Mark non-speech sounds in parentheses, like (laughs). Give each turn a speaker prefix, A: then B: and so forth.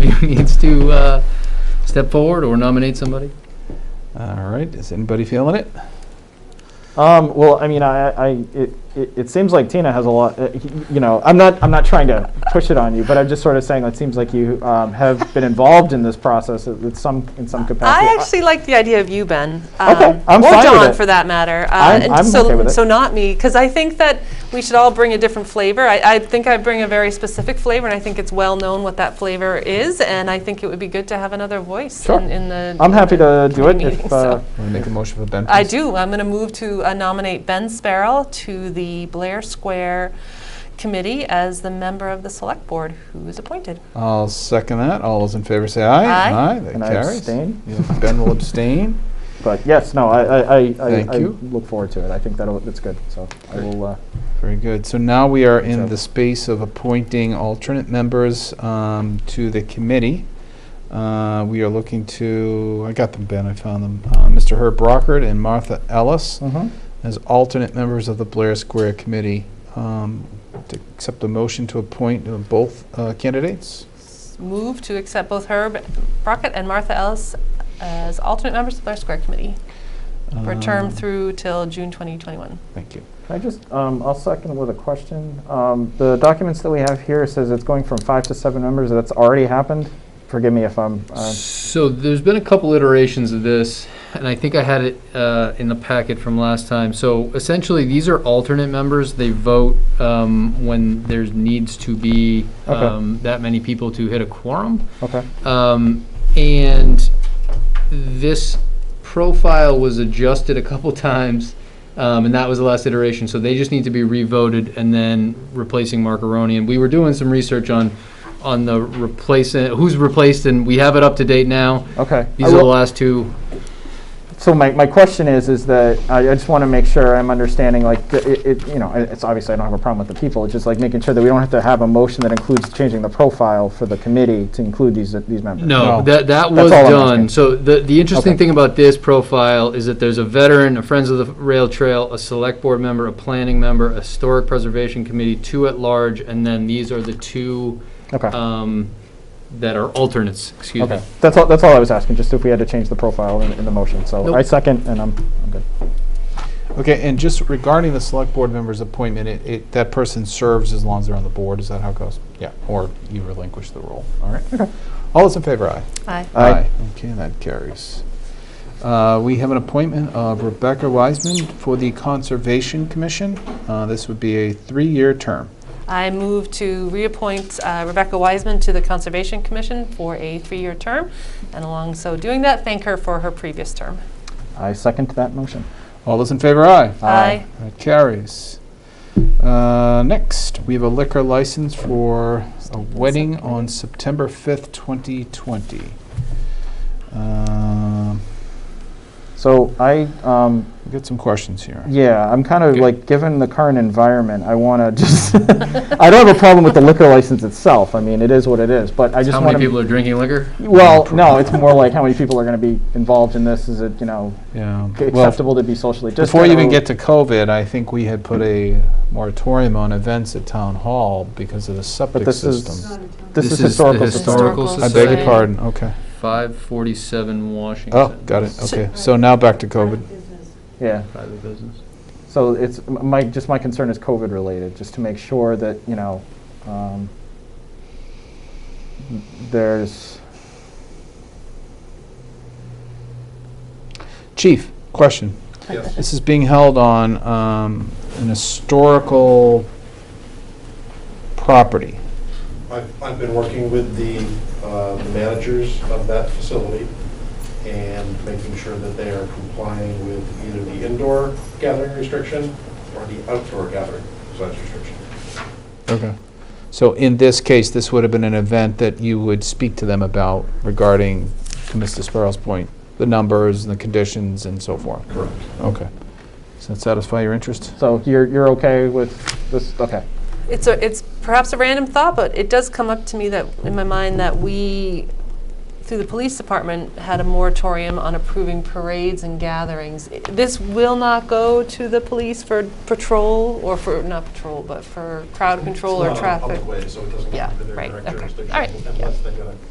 A: (laughs) who needs to uh, step forward or nominate somebody?
B: All right, is anybody feeling it?
C: Um, well, I mean, I, I it, it, it seems like Tina has a lot. Uh, you know, I'm not, I'm not trying to push it on you, but I'm just sort of saying it seems like you um, have been involved in this process at, at some, in some capacity.
D: I actually like the idea of you, Ben.
C: Okay,
D: um,
C: I'm
D: or
C: fine with
D: John,
C: it.
D: for that matter. Uh,
C: I'm-
D: and
C: I'm
D: so,
C: okay with it.
D: so not me, because I think that we should all bring a different flavor. I, I think I bring a very specific flavor, and I think it's well known what that flavor is. And I think it would be good to have another voice
C: Sure.
D: in, in the.
C: I'm happy to do it
D: committee meeting,
C: if. Uh,
D: so.
B: Want to make a motion for Ben?
D: I
B: please?
D: do. I'm going to move to uh, nominate Ben Sparrow to the Blair Square Committee as the member of the Select Board who is appointed.
B: I'll second that. All those in favor say aye.
D: Aye.
B: that
C: And I
B: carries.
C: abstain.
B: You- Ben will abstain.
C: but yes, no, I, I, I, I,
B: Thank
C: I
B: you.
C: look forward to it. I think that'll, that's good. So I will. Uh,
B: Very good. So now we are in
C: So-
B: the space of appointing alternate members um, to the committee. Uh, We are looking to, I got them, Ben, I found them. Uh, Mr. Herb Brockert and Martha Ellis as alternate members of the Blair Square Committee. Um, To accept a motion to appoint uh, both uh, candidates.
D: S- Move to accept both Herb Brockett and Martha Ellis as alternate members of Blair Square Committee. for a term
B: Um,
D: through till June 2021.
B: Thank you.
C: Can I just, um, I'll second with a question. Um, the documents that we have here says it's going from five to seven members. That's already happened. Forgive me if I'm. Uh,
A: So there's been a couple iterations of this, and I think I had it uh, in the packet from last time. So essentially, these are alternate members. They vote um, when there needs to be
C: Okay.
A: um, that many people to hit a quorum.
C: okay.
A: Um, and this profile was adjusted a couple (laughs) times, um, and that was the last iteration. So they just need to be revoted and then replacing Marconi. And we were doing some research on on the replacement, who's replaced, and we have it up to date now.
C: Okay.
A: These are
C: I
A: the
C: will-
A: last two.
C: So my, my question is, is that, I I just want to make sure I'm understanding, like, the- it, it- you know, it- it's obviously, I don't have a problem with the people, it's just like making sure that we don't have to have a motion that includes changing the profile for the committee to include these, these members.
A: No,
B: No.
A: that, that
C: That's
A: was
C: all I'm
A: done.
C: asking.
A: So the, the interesting
C: Okay.
A: thing about this profile is that there's a veteran, a Friends of the Rail Trail, a Select Board member, a Planning member, a Historic Preservation Committee, two at large, and then these are the two
C: Okay,
A: um, that are alternates, excuse me.
C: okay. That's all, that's all I was asking, just if we had to change the profile in, in the motion, so
A: Nope.
C: I second, and I'm, I'm good.
B: Okay, and just regarding the select board member's appointment, it, it, that person serves as long as they're on the board, is that how it goes? Yeah. Or you relinquish the role, all right? Okay. All those in favor, aye?
D: Aye.
C: Aye.
B: Okay, that carries. Uh, we have an appointment of Rebecca Wiseman for the Conservation Commission. Uh, this would be a three-year term.
D: I move to reappoint uh, Rebecca Wiseman to the Conservation Commission for a three-year term, and along so doing that, thank her for her previous term.
C: I second that motion.
B: All those in favor, aye?
C: Aye.
B: That carries. Uh, next, we have a liquor license for a wedding on September 5th, 2020. Um,
C: So I, um,
B: We've got some questions here.
C: Yeah, I'm kind of
B: Okay.
C: like, given the current environment, I want to just, (laughs) I don't have a problem with the liquor license itself. I mean, it is what it is, but I just
A: How
C: want to.
A: many people are drinking liquor?
C: Well, no, it's more
B: (laughs)
C: like how many people are going to be involved in this. Is it, you know,
B: Yeah.
C: c-
B: Well,
C: acceptable to be socially distant?
B: Before you even
C: or-
B: get to COVID, I think we had put a moratorium on events at town hall because of the septic
C: this is-
B: system.
C: This is
A: the
C: historical. society.
A: Historical
B: I
D: Historical
B: beg your
D: Society.
B: pardon, okay.
A: 547 Washington.
B: Oh, got it, okay. So now back to COVID.
C: Yeah,
A: Private business.
C: so it's, m- my, just my concern is COVID related, just to make sure that, you know, um, there's,
B: Chief, question. Yes. This is being held on um, an historical property.
E: I've, I've been working with the uh, the managers of that facility and making sure that they are complying with either the indoor gathering restriction or the outdoor gathering size restriction.
B: Okay. So in this case, this would have been an event that you would speak to them about regarding, to Mr. Sparrow's point, the numbers and the conditions and so forth.
E: Correct.
B: Okay. Does that satisfy your interest?
C: so you're, you're okay with this? Okay.
D: It's a, it's perhaps a random thought, but it does come up to me that, in my mind, that we, through the police department, had a moratorium on approving parades and gatherings. I- This will not go to the police for patrol, or for, not patrol, but for crowd control or
E: It's not on a
D: traffic.
E: public way, so it doesn't
D: Yeah,
E: come under their
D: right,
E: direct
D: okay.
E: jurisdiction
D: All right, yeah.
E: unless they got a